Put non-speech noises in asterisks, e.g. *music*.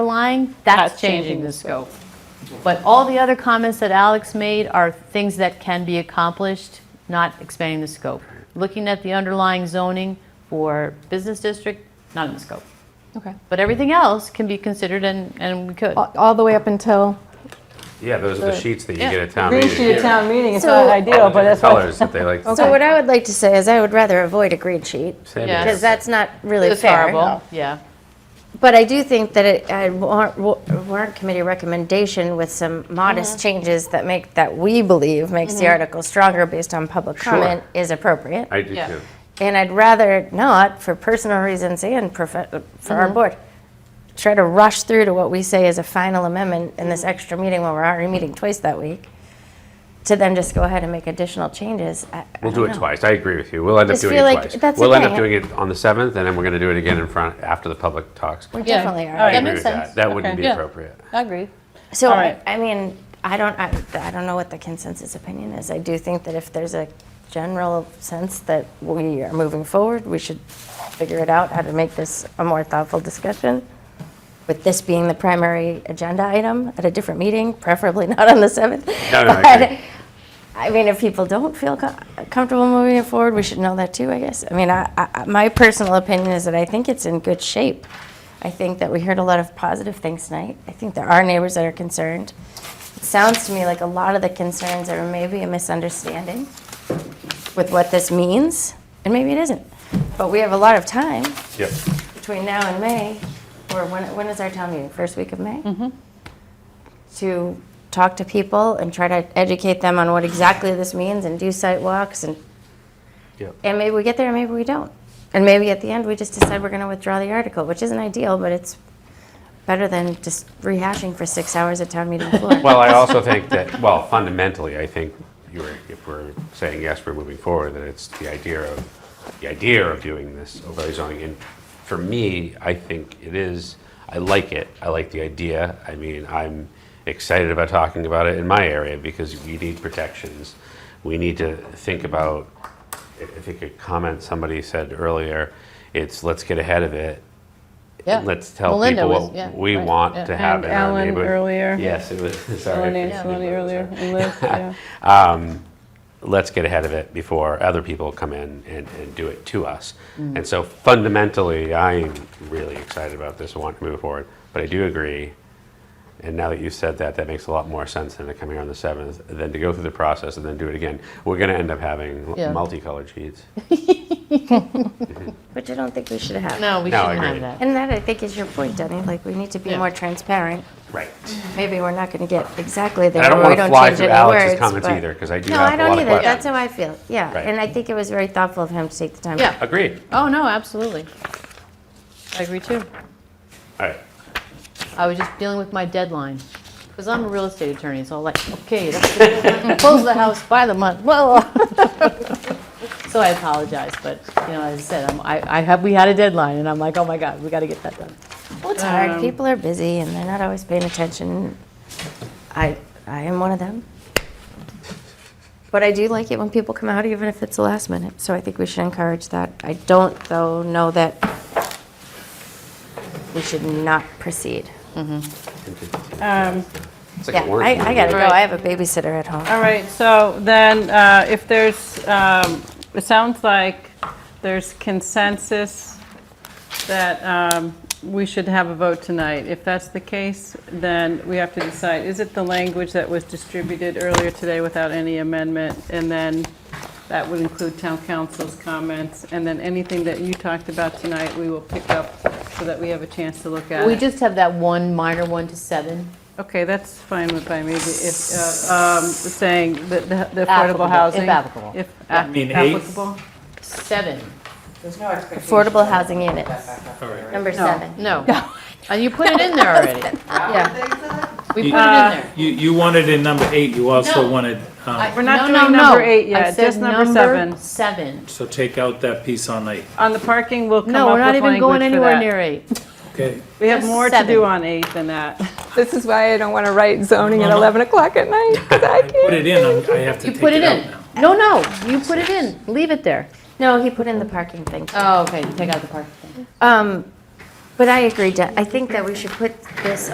line, that's changing the scope. But all the other comments that Alex made are things that can be accomplished, not expanding the scope. Looking at the underlying zoning for business district, not in the scope. Okay. But everything else can be considered and, and we could. All all the way up until? Yeah, those are the sheets that you get at town Green meeting. sheet at town meeting, it's So- not ideal, but that's what. Colors that they like. So what I would like to say is I would rather avoid a green sheet Same Yeah. because here. that's not really It's fair. horrible, yeah. But I do think that it, a warrant, wa- warrant committee recommendation with some modest changes that make that we believe makes the article stronger based on public comment is appropriate. I do Yeah. too. and I'd rather not, for personal reasons and profe- for our board, try to rush through to what we say is a final amendment in this extra meeting when we're already meeting twice that week. To then just go ahead and make additional changes. I- I We'll do don't it know. twice. I agree with you. We'll end up Just doing feel it like twice. that's We'll end up okay. doing it on the 7th, and then we're going to do it again in front, after the public talks. We Yeah. definitely are. All I right. agree makes with sense. That wouldn't be Okay. Yeah. appropriate. I agree. So, All right. I I mean, I don't, I, I don't know what the consensus opinion is. I do think that if there's a general sense that we are moving forward, we should figure it out, how to make this a more thoughtful discussion. With this being the primary agenda item at a different meeting, preferably not on the 7th. No, no, I *laughs* But, agree. I mean, if people don't feel co- comfortable moving it forward, we should know that too, I guess. I mean, I, I, I- my personal opinion is that I think it's in good shape. I think that we heard a lot of positive things tonight. I think there are neighbors that are concerned. It sounds to me like a lot of the concerns are maybe a misunderstanding with what this means, and maybe it isn't. But we have a lot of time Yep. between now and May, or when, when is our town meeting? First week of May? Mm-hmm. To talk to people and try to educate them on what exactly this means and do site walks and, Yep. and maybe we get there and maybe we don't. And maybe at the end, we just decide we're going to withdraw the article, which isn't ideal, but it's better than just rehashing for six hours at town meeting floor. *laughs* Well, I also think that, well, fundamentally, I think you were, if we're saying yes, we're moving forward, then it's the idea of, the idea of doing this overlay zoning. And for me, I think it is, I like it. I like the idea. I mean, I'm excited about talking about it in my area because we need protections. We need to think about, I I think a comment somebody said earlier, it's let's get ahead of it. Yeah. Let's tell Melinda people was- what yeah, we right, want yeah. to have in And our Alan neighborhood. earlier. Yes, it was, *laughs* Alan sorry. I Anceloni forgot about that. earlier, and Liz, yeah. let's get ahead of it before other people come in and, and do it to us. Mm. And so fundamentally, I'm really excited about this and want to move forward. But I do agree, and now that you've said that, that makes a lot more sense than to come here on the 7th, than to go through the process and then do it again. We're going to end up having Yeah. multicolored *laughs* sheets. Which I don't think we should have. No, we No, I shouldn't have agree. that. And that, I think, is your point, Denny, like, we need to be Yeah. more transparent. Right. Maybe we're not going to get exactly there. And I don't where want we to fly change through any Alex's words, comments but- either, because I do No, have I a lot don't of either. That's questions. how I feel. Yeah. Right. And I think it was very thoughtful of him to take the time. Yeah. Agreed. Oh, no, absolutely. I agree too. All right. I was just dealing with my deadline, because I'm a real estate attorney, so I'm like, okay, *laughs* that's the deadline. close the house by the month, blah, blah. *laughs* So I apologize, but, you know, as I said, I'm- I I have, we had a deadline, and I'm like, oh my God, we got to get that done. Well, it's hard. People are busy and they're not always paying attention. I, I am one of them. But I do like it when people come out, even if it's the last minute. So I think we should encourage that. I don't, though, know that we should not proceed. Um, It's like a Yeah, warrant I, I meeting. gotta go. I have a babysitter at home. All right, so then, uh, if there's, um, it sounds like there's consensus that um, we should have a vote tonight. If that's the case, then we have to decide, is it the language that was distributed earlier today without any amendment? And then that would include town council's comments, and then anything that you talked about tonight, we will pick up so that we have a chance to look at We it. just have that one minor one to seven. Okay, that's fine with by me, if, uh, um, saying that the the Applicable, affordable housing. if applicable. If mean, a- eight? applicable. Seven, There's no expectation. Affordable housing units. Number No. seven. no. And you put it in there already. *laughs* Yeah. We put it in Uh, there. You, you wanted in number eight, you also No. wanted, um, I- We're not no, doing no, number no. eight I yet, said just number seven. Seven. so take out that piece on eight, On the parking, we'll come No, up we're with not language for that. even going anywhere near eight. okay? We have Just more to seven. do on eight than that. This is why I don't want to write zoning at No, no. 11 o'clock at night, 'cause I I put can't. it in, I'm- I have to You take put it it out in. now. No, no, you put it in. Leave it there. No, he put in the parking thing. Oh, okay, take out the parking thing. Um, But I agree, De- I think that we should put this